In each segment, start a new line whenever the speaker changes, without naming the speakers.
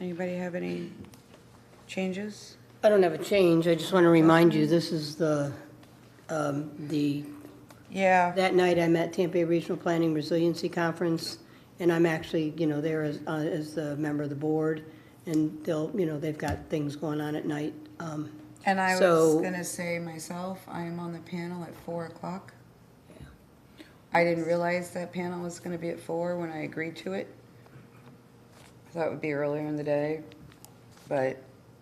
Anybody have any changes?
I don't have a change, I just want to remind you, this is the, um, the,
Yeah,
that night I'm at Tampa Bay Regional Planning Resiliency Conference, and I'm actually, you know, there as, uh, as the member of the board, and they'll, you know, they've got things going on at night. Um,
and I was
So-
gonna say myself, I am on the panel at four o'clock. I didn't realize that panel was gonna be at four when I agreed to it. I thought it would be earlier in the day, but,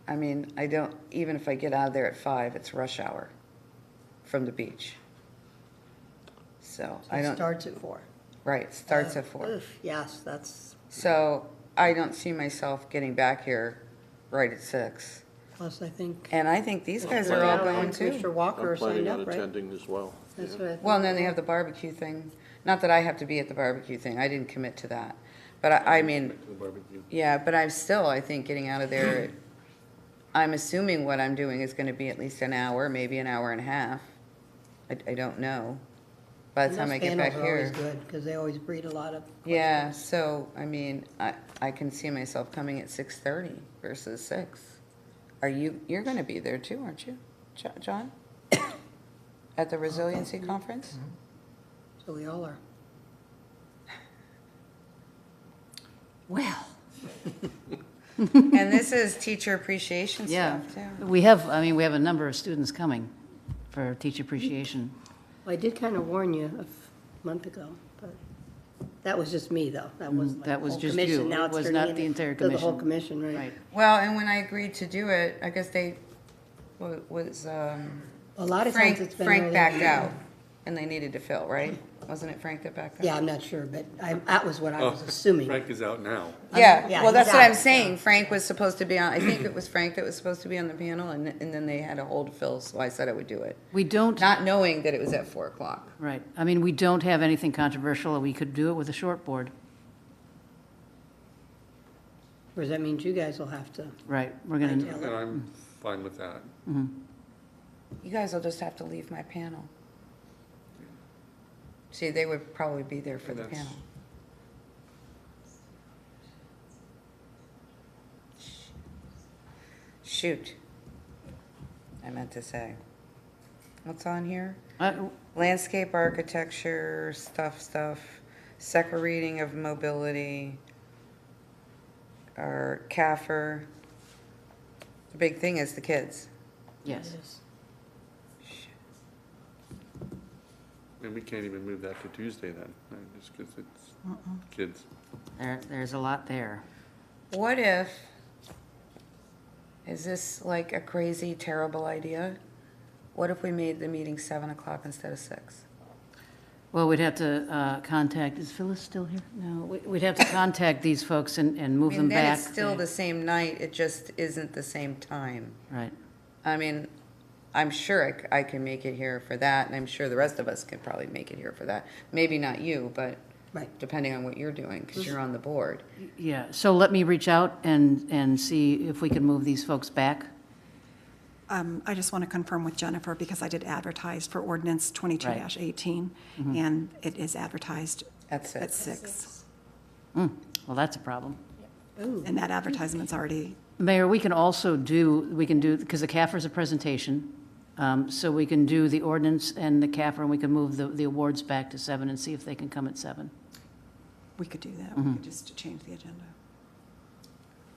I mean, I don't, even if I get out of there at five, it's rush hour from the beach. So, I
It
don't,
starts at four.
right, starts at four.
Oof, Yes, that's,
So I don't see myself getting back here right at six.
plus I think.
And I think these guys are all going
Mr.
too.
Walker
I'm
signed
planning on
up, right?
attending as well.
That's what I think.
Well, and then they have the barbecue thing. Not that I have to be at the barbecue thing. I didn't commit to that. But I, I mean,
The barbecue.
yeah, but I'm still, I think, getting out of there. at- I'm assuming what I'm doing is gonna be at least an hour, maybe an hour and a half. I, I don't know. By the time I get back
Panels are
here.
always good, because they always breed a lot of.
Yeah, so, I mean, I, I can see myself coming at six thirty versus six. Are you, you're gonna be there too, aren't you, Jo- John? At the resiliency conference?
Mm-hmm. So we all are.
Well. And this is teacher appreciation
Yeah,
stuff too.
we have, I mean, we have a number of students coming for teacher appreciation.
Well, I did kind of warn you a f- month ago, but that was just me, though. That was
Mm, that was just you.
Now
It
it's
was
turning
not
into-
the entire
to The whole
commission.
commission, right?
Right.
Well, and when I agreed to do it, I guess they, wa- was, um,
A lot of times
Frank,
it's been.
Frank
early
backed
on.
out and they needed to fill, right? Wasn't it Frank that backed out?
Yeah, I'm not sure, but I, that was what I
Oh,
was assuming.
Frank is out now.
Yeah,
yeah,
well,
he's
that's what I'm
out,
saying. Frank was supposed to be on, I think it was Frank that was supposed to be on the panel, and, and then they had a hold Phil, so I said I would do it.
We don't,
Not knowing that it was at four o'clock.
right, I mean, we don't have anything controversial, we could do it with a short board,
Whereas that means you guys will have to.
right, we're gonna,
And I'm fine with that.
You guys will just have to leave my panel. See, they would probably be there for the
That's-
panel. Shoot. I meant to say. What's on here?
Uh,
landscape architecture, stuff, stuff, second reading of mobility, or CAFR. The big thing is the kids.
yes.
And we can't even move that to Tuesday then, right, just because it's kids.
There, there's a lot there.
What if, is this like a crazy, terrible idea? What if we made the meeting seven o'clock instead of six?
Well, we'd have to uh, contact, is Phyllis still here? No, we- we'd have to contact these folks and, and move them
And then
back.
it's still the same night, it just isn't the same time.
Right,
I mean, I'm sure I c- I, can make it here for that, and I'm sure the rest of us could probably make it here for that. Maybe not you, but
Right.
depending on what you're doing, because you're on the board.
yeah, so let me reach out and, and see if we can move these folks back.
Um, I just want to confirm with Jennifer, because I did advertise for ordinance 22-18, and it is advertised
At six.
at six,
Hmm, Well, that's a problem.
And that advertisement's already,
Mayor, we can also do, we can do, because the CAFR is a presentation, um, so we can do the ordinance and the CAFR, and we can move the, the awards back to seven and see if they can come at seven.
we could do that, we could just change the agenda.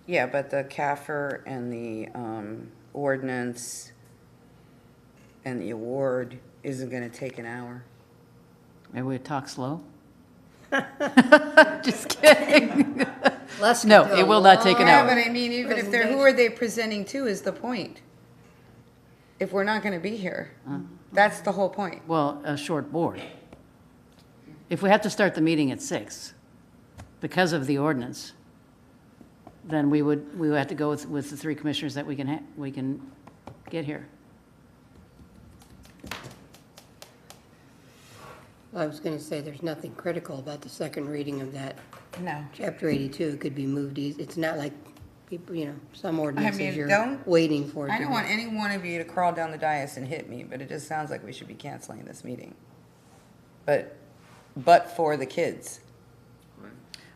Yeah, but the CAFR and the um, ordinance and the award isn't going to take an hour.
Maybe we talk slow? Just kidding.
Let's
No,
do a
it will not take an
long-
Yeah,
hour.
but I mean, even if they're, who are they presenting to is the point. If we're not going to be here, that's the whole point.
Well, a short board. If we have to start the meeting at six because of the ordinance, then we would, we would have to go with, with the three commissioners that we can, ha- we can get here.
I was going to say, there's nothing critical about the second reading of that.
No.
Chapter 82 It could be moved, eas- it's not like, people, you know, some
mean,
ordinances you're
don't-
waiting for. it
I
to
don't
be-
want any one of you to crawl down the dais and hit me, but it just sounds like we should be canceling this meeting. But, but for the kids.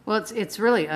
Well, it's, it's really,